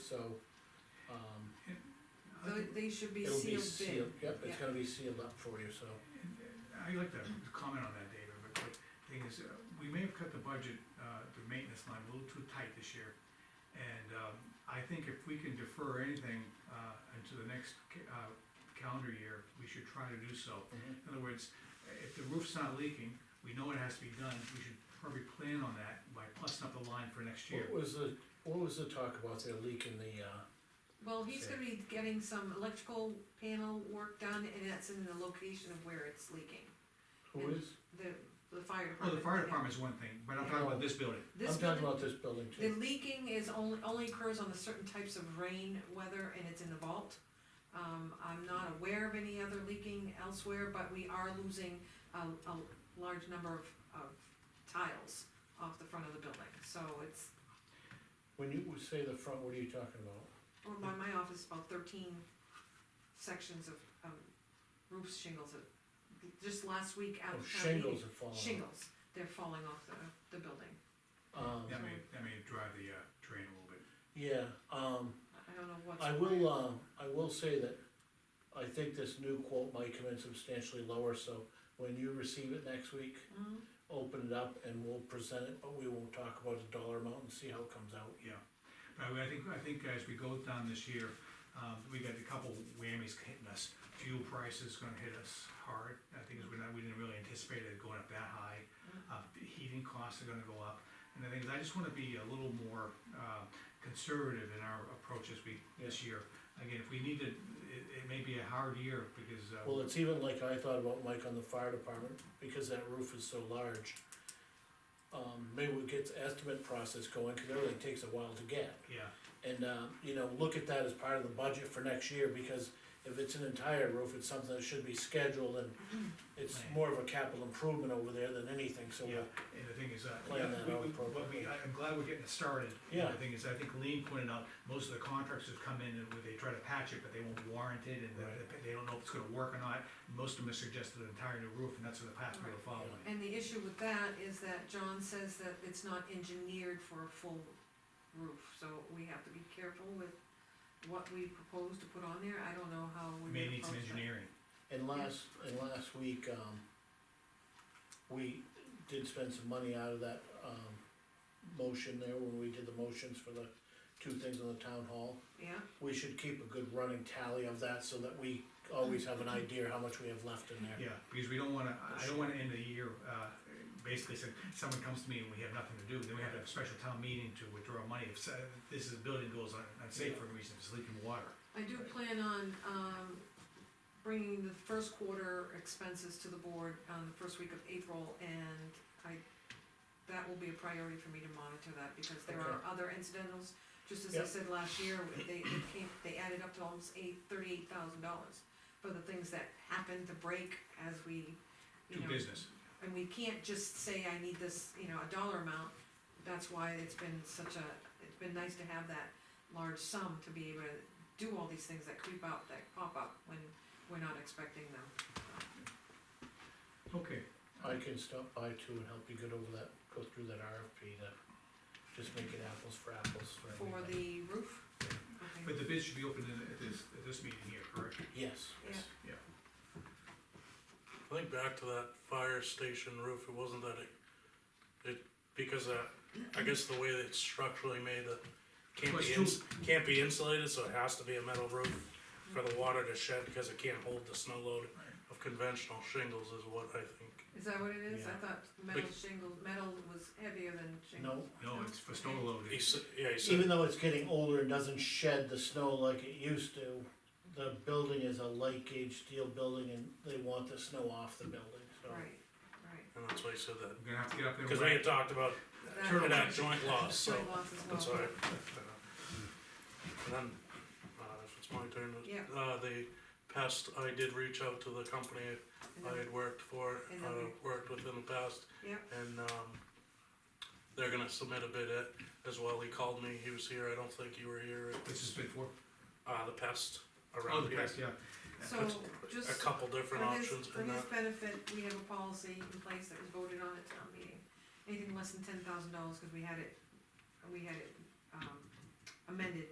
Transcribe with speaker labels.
Speaker 1: so, um,
Speaker 2: I
Speaker 3: Tho-
Speaker 2: think-
Speaker 3: They should be
Speaker 1: it'll be
Speaker 3: sealed bid.
Speaker 1: sealed, yep, it's
Speaker 3: Yeah.
Speaker 1: gonna be sealed up for you, so.
Speaker 2: I'd like to comment on that, David, but the thing is, uh, we may have cut the budget, uh, the maintenance line a little too tight this year. And, um, I think if we can defer anything, uh, into the next, ca- uh, calendar year, we should try to do so. In other words, if the roof's not leaking, we know it has to be done, we should probably plan on that by plussing up the line for next year.
Speaker 1: What was the, what was the talk about the leak in the, uh,
Speaker 3: Well, he's gonna be getting some electrical panel work done, and that's in the location of where it's leaking,
Speaker 1: who
Speaker 3: And-
Speaker 1: is?
Speaker 3: the, the fire
Speaker 2: Well, Oh,
Speaker 3: department.
Speaker 2: the fire department's one thing, but I'm talking about this building.
Speaker 3: This
Speaker 1: I'm talking
Speaker 3: building,
Speaker 1: about this building
Speaker 3: the
Speaker 1: too.
Speaker 3: leaking is only, only occurs on the certain types of rain weather, and it's in the vault. Um, I'm not aware of any other leaking elsewhere, but we are losing a, a large number of, of tiles off the front of the building, so it's,
Speaker 1: When you would say the front, what are you talking about?
Speaker 3: Well, my, my office, about thirteen sections of, um, roof shingles, that- just last week out
Speaker 1: Oh,
Speaker 3: of town meeting.
Speaker 1: shingles are falling off.
Speaker 3: Shingles, they're falling off the, the building,
Speaker 1: Um,
Speaker 2: That may, that may drive the, uh, train a little bit.
Speaker 1: yeah, um,
Speaker 3: I don't know what's.
Speaker 1: I will, um, I will say that I think this new quote might come in substantially lower, so when you receive it next week,
Speaker 3: Mhm.
Speaker 1: open it up and we'll present it, but we won't talk about the dollar amount and see how it comes out.
Speaker 2: Yeah, but I I think, I think as we go down this year, um, we got a couple whammies hitting us. Fuel price is gonna hit us hard, I think we're not, we didn't really anticipate it going up that high. Uh, the heating costs are gonna go up, and the thing is, I just wanna be a little more, uh, conservative in our approach as we, this year. Again, if we need to, it, it may be a hard year because, uh.
Speaker 1: Well, it's even like I thought about Mike on the fire department, because that roof is so large. Um, maybe we get the estimate process going, cause everything takes a while to get.
Speaker 2: Yeah,
Speaker 1: And, uh, you know, look at that as part of the budget for next year, because if it's an entire roof, it's something that should be scheduled and it's
Speaker 2: Right.
Speaker 1: more of a capital improvement over there than anything, so
Speaker 2: Yeah,
Speaker 1: we'll
Speaker 2: and the thing is, uh,
Speaker 1: Plan that
Speaker 2: we-
Speaker 1: out
Speaker 2: we- but we,
Speaker 1: appropriately.
Speaker 2: I- I'm glad we're getting it started.
Speaker 1: Yeah.
Speaker 2: The thing is, I think Lean pointed out, most of the contracts have come in and they try to patch it, but they won't warrant it, and they-
Speaker 1: Right.
Speaker 2: they don't know if it's gonna work or not. Most of them have suggested an entire new roof, and that's the path we're
Speaker 1: uh,
Speaker 2: following.
Speaker 3: And the issue with that is that John says that it's not engineered for a full roof, so we have to be careful with what we propose to put on there, I don't know how we.
Speaker 2: We may need some
Speaker 3: approach that.
Speaker 2: engineering.
Speaker 1: And last, and last week, um, we did spend some money out of that, um, motion there, when we did the motions for the two things on the town hall.
Speaker 3: Yeah,
Speaker 1: We should keep a good running tally of that, so that we always have an idea how much we have left in there.
Speaker 2: Yeah, because we don't wanna, I- I don't wanna end the year, uh, basically, so someone comes to me and we have nothing to do, then we have to have a special town meeting to withdraw money. If uh, this is, building goes un- unsafe for a reason, if it's leaking water.
Speaker 3: I do plan on, um, bringing the first quarter expenses to the board on the first week of April, and I, that will be a priority for me to monitor that, because there are
Speaker 1: Okay.
Speaker 3: other incidentals, just as I
Speaker 1: Yep.
Speaker 3: said last year, they, they came, they added up to almost eight, thirty-eight thousand dollars for the things that happened to break as we, you
Speaker 2: Do
Speaker 3: know.
Speaker 2: business.
Speaker 3: And we can't just say, I need this, you know, a dollar amount, that's why it's been such a, it's been nice to have that large sum to be able to do all these things that creep up, that pop up when we're not expecting them.
Speaker 2: Okay,
Speaker 1: I can stop by too and help you get over that, go through that RFP to just make it apples for apples for
Speaker 3: For
Speaker 1: everybody.
Speaker 3: the roof? Okay.
Speaker 2: but the bid should be open in- at this, at this meeting here, correct?
Speaker 1: Yes,
Speaker 3: Yeah.
Speaker 2: Yeah.
Speaker 4: I think back to that fire station roof, it wasn't that it, it, because that, I guess the way that it's structurally made, that can't
Speaker 2: Plus
Speaker 4: be
Speaker 2: two-
Speaker 4: ins, can't be insulated, so it has to be a metal roof for the water to shed, because it can't hold the snow load of conventional shingles is what I think.
Speaker 3: Is that what it is? I
Speaker 1: Yeah.
Speaker 3: thought metal shingles, metal was heavier than shingles.
Speaker 1: no,
Speaker 2: No, it's for snow load.
Speaker 4: He said, yeah, he
Speaker 1: even
Speaker 4: said,
Speaker 1: though it's getting older and doesn't shed the snow like it used to, the building is a light gauge steel building and they want the snow off the building, so.
Speaker 3: Right, right.
Speaker 4: and that's why he said that,
Speaker 2: We're gonna have to get up there. and
Speaker 4: because we had talked about
Speaker 3: That-
Speaker 2: Turtle
Speaker 4: that joint loss, so,
Speaker 3: Joint loss as well.
Speaker 4: that's all right. And then, uh, if it's my turn,
Speaker 3: Yeah.
Speaker 4: uh, the pest, I did reach out to the company
Speaker 3: And
Speaker 4: I
Speaker 3: then-
Speaker 4: had worked for,
Speaker 3: And
Speaker 4: uh,
Speaker 3: then we-
Speaker 4: worked with in the past,
Speaker 3: Yep,
Speaker 4: and, um, they're gonna submit a bid at, as well, he called me, he was here, I don't think you were here,
Speaker 2: This has been for,
Speaker 4: uh, the pest
Speaker 2: oh,
Speaker 4: around
Speaker 2: the
Speaker 4: here.
Speaker 2: pest, yeah.
Speaker 3: so just.
Speaker 4: A couple different
Speaker 3: For his-
Speaker 4: options
Speaker 3: For
Speaker 4: and
Speaker 3: his
Speaker 4: that,
Speaker 3: benefit, we have a policy in place that was voted on at town meeting. Anything less than ten thousand dollars, cause we had it, we had it, um, amended